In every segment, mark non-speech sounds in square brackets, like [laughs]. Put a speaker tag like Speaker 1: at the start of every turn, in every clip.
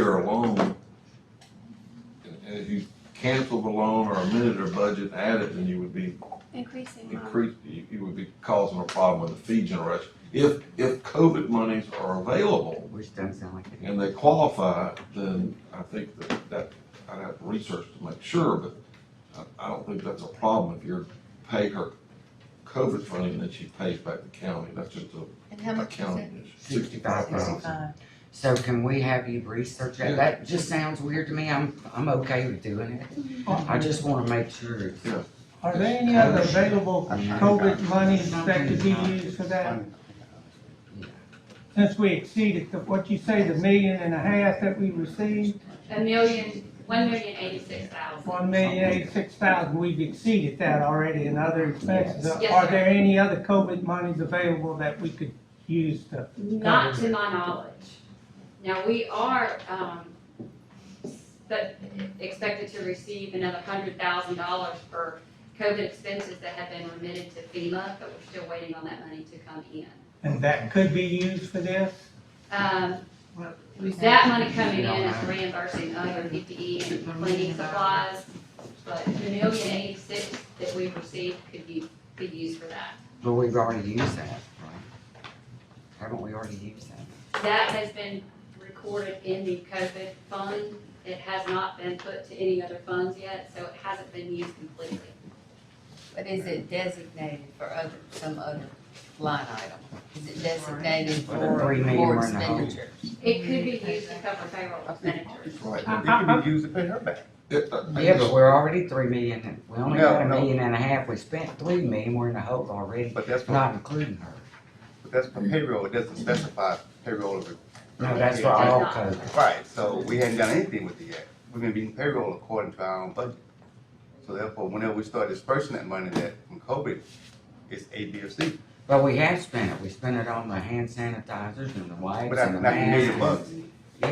Speaker 1: or a loan, and and if you cancel the loan or amended their budget and added, then you would be
Speaker 2: Increasing loan.
Speaker 1: increase, you you would be causing a problem with the fee generation. If, if COVID monies are available
Speaker 3: Which doesn't sound like it.
Speaker 1: and they qualify, then I think that, that, I'd have to research to make sure, but I, I don't think that's a problem if you're pay her COVID funding and then she pays back the county, that's just a
Speaker 4: And how much is it?
Speaker 1: accounting issue. Sixty-five thousand.
Speaker 4: Sixty-five.
Speaker 3: So can we have you research
Speaker 1: Yeah.
Speaker 3: that? That just sounds weird to me. I'm, I'm okay with doing it. I just wanna make sure. it's-
Speaker 5: Are there any other available COVID monies that could be used for that? Since we exceeded, the- what you say, the million and a half that we received,
Speaker 2: A million, one million eighty-six thousand.
Speaker 5: one million eighty-six thousand, we've exceeded that already in other expenses.
Speaker 2: Yes,
Speaker 5: Are
Speaker 2: sir.
Speaker 5: there any other COVID monies available that we could use to?
Speaker 2: Not to my knowledge. Now, we are, um, but expected to receive another hundred thousand dollars for COVID expenses that have been remitted to FEMA, but we're still waiting on that money to come in.
Speaker 5: And that could be used for this?
Speaker 2: Um, that money coming in is reimbursing other PPE and cleaning supplies, but the million eighty-six that we've received could be, be used for that.
Speaker 3: But we've already used that, right? Haven't we already used that?
Speaker 2: That has been recorded in the COVID fund. It has not been put to any other funds yet, so it hasn't been used completely.
Speaker 4: But is it designated for other, some other line item? Is it designated
Speaker 3: For the
Speaker 4: for
Speaker 3: three million
Speaker 4: more
Speaker 3: we're in the hole.
Speaker 4: expenditure?
Speaker 2: It could be used to cover payroll expenditures.
Speaker 1: Right.
Speaker 5: I-
Speaker 6: It could be used to pay her back.
Speaker 1: It- I- I
Speaker 3: Yeah,
Speaker 1: just-
Speaker 3: but we're already three million, and- we only
Speaker 6: No,
Speaker 3: got a
Speaker 6: no.
Speaker 3: million and a half. We spent three million. We're in the hole already,
Speaker 6: But that's for,
Speaker 3: not including her.
Speaker 6: but that's for payroll, it doesn't specify payroll of it.
Speaker 3: No, that's for all COVID.
Speaker 6: Right, so we hadn't done anything with it yet. We've been being payroll according to our own budget. So therefore, whenever we start dispersing that money that from COVID, it's A, B, or C.
Speaker 3: But we have spent it. We spent it on the hand sanitizers and the
Speaker 6: But
Speaker 3: wipes
Speaker 6: that's
Speaker 3: and the
Speaker 6: not a million
Speaker 3: masks.
Speaker 6: bucks.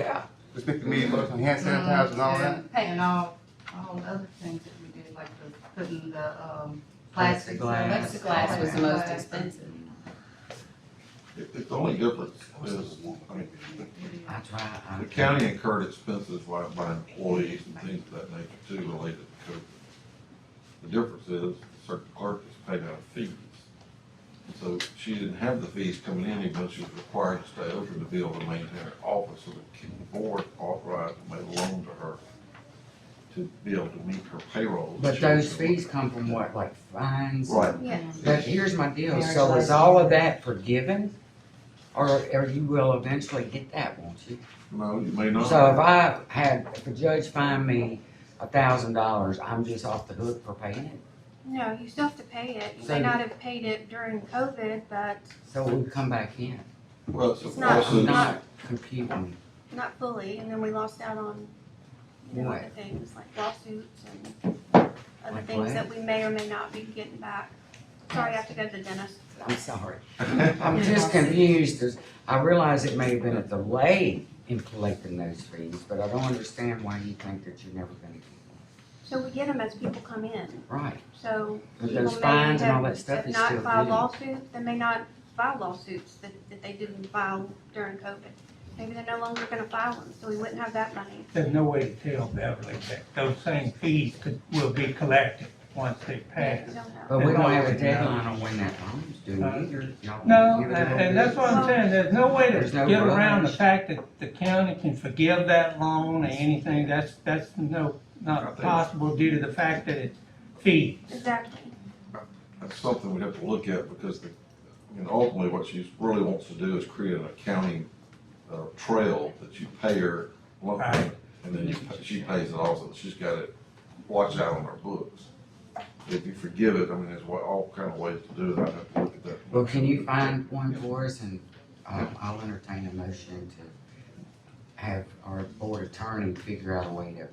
Speaker 3: Yeah,
Speaker 6: We spent a million bucks on hand sanitizer and all that.
Speaker 7: And all, all other things that we did, like the, putting the, um, plastic.
Speaker 3: Plexiglass.
Speaker 4: Plexiglass was the most expensive.
Speaker 1: it- It's the only difference is, I mean,
Speaker 3: I try. I-
Speaker 1: The county incurred expenses by, by employees and things of that nature too related to COVID. The difference is, certain clerk is paid out of fees. So she didn't have the fees coming in, even though she was required to stay open to be able to maintain her office, so the board authorized and made a loan to her to be able to meet her payroll.
Speaker 3: But those fees come from what, like fines?
Speaker 1: Right.
Speaker 2: Yes.
Speaker 3: But here's my deal, so is all of that forgiven? Or, or you will eventually get that, won't you?
Speaker 1: No, you may not.
Speaker 3: So if I had, if a judge fined me a thousand dollars, I'm just off the hook for paying it?
Speaker 8: No, you still have to pay it. You
Speaker 3: So-
Speaker 8: may not have paid it during COVID, but
Speaker 3: So we come back in?
Speaker 1: Well, it's a
Speaker 8: It's not-
Speaker 3: I'm
Speaker 1: lawsuit.
Speaker 3: not computing.
Speaker 8: not fully, and then we lost out on, you know, other
Speaker 3: What?
Speaker 8: things like lawsuits and other
Speaker 3: Like
Speaker 8: things
Speaker 3: what?
Speaker 8: that we may or may not be getting back. Sorry, I have to go to the dentist.
Speaker 1: [laughs]
Speaker 3: I'm sorry. I'm just confused, as I realize it may have been a delay in collecting those fees, but I don't understand why you think that you're never gonna get them.
Speaker 8: So we get them as people come in,
Speaker 3: Right,
Speaker 8: so
Speaker 3: But
Speaker 8: people
Speaker 3: those
Speaker 8: may
Speaker 3: fines and all
Speaker 8: have-
Speaker 3: that stuff
Speaker 8: have
Speaker 3: is
Speaker 8: not
Speaker 3: still
Speaker 8: filed
Speaker 3: due.
Speaker 8: lawsuits, they may not file lawsuits that, that they didn't file during COVID. Maybe they're no longer gonna file them, so we wouldn't have that money.
Speaker 5: There's no way to tell Beverly that those same fees could, will be collected once they pass.
Speaker 8: We don't know.
Speaker 3: but we don't have a deadline on when that loan's due either. Y'all
Speaker 5: No,
Speaker 3: give
Speaker 5: and
Speaker 3: it up.
Speaker 5: and that's what I'm saying, there's no way to
Speaker 3: There's no
Speaker 5: get around the
Speaker 3: rush.
Speaker 5: fact that the county can forgive that loan or anything, that's, that's no,
Speaker 1: I
Speaker 5: not
Speaker 1: think-
Speaker 5: possible due to the fact that it's fee.
Speaker 8: Exactly.
Speaker 1: That's something we have to look at because the, you know, ultimately what she really wants to do is create an accounting, uh, trail that you pay her lump sum,
Speaker 5: Right.
Speaker 1: and then you pa- she pays it also. She's got it watched out on her books. If you forgive it, I mean, there's wa- all kind of ways to do it. I'd have to look at that.
Speaker 3: Well, can you find one for us and, um, I'll entertain a motion to have our board attorney figure out a way to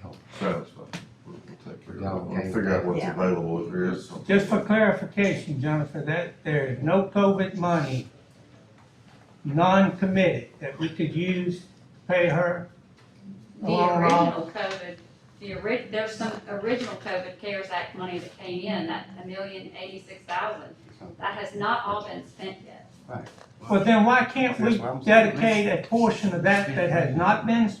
Speaker 3: help.
Speaker 1: Sounds fine. We'll we'll take care of it. We'll
Speaker 3: Okay.
Speaker 1: figure out what's available if there is something.
Speaker 5: Just for clarification, Jennifer, that there is no COVID money, non-committed, that we could use, to pay her.
Speaker 2: The
Speaker 5: Along with-
Speaker 2: original COVID, the ori, there's some original COVID CARES Act money that came in, that a million eighty-six thousand. That has not all been spent yet.
Speaker 5: Well, then why can't we
Speaker 6: That's what I'm saying.
Speaker 5: dedicate a portion of that that has not been